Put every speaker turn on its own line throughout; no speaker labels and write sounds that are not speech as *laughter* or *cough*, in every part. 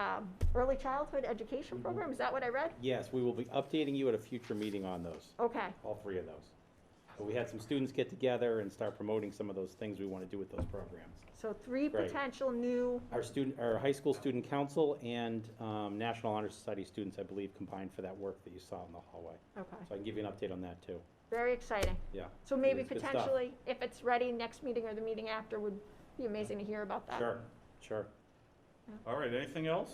um, early childhood
Mm-hmm.
education program, is that what I read?
Yes, we will be updating you at a future meeting on those,
Okay,
all three of those. But we had some students get together and start promoting some of those things we want to do with those programs.
so three
Great.
potential new,
Our student, our high school student council and um, National Honor Society students, I believe, combined for that work that you saw in the hallway. So
okay,
I can give you an update on that, too.
very exciting.
Yeah.
So maybe
It's good stuff.
potentially, if it's ready, next meeting or the meeting after would be amazing to hear about that.
Sure, sure.
All right, anything else?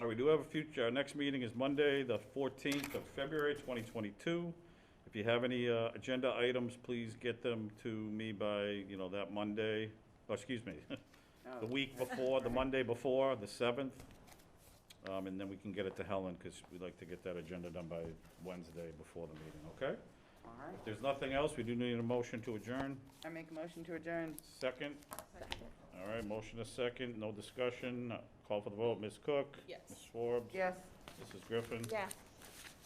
All right, we do have a future, our next meeting is Monday, the 14th of February, 2022. If you have any uh, agenda items, please get them to me by, you know, that Monday, oh, excuse me, *laughs* the week before, the Monday before, the 7th. Um, And then we can get it to Helen, because we'd like to get that agenda done by Wednesday before the meeting, okay?
All right.
If there's nothing else, we do need a motion to adjourn.
I make a motion to adjourn.
Second? All right, motion is second, no discussion. Call for the vote, Ms. Cook?
Yes.
Ms. Forbes?
Yes.
Mrs. Griffin?
Yeah.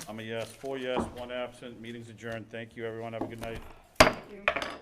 I'm a yes, four yes, one absent. Meeting's adjourned. Thank you, everyone. Have a good night.
Thank you.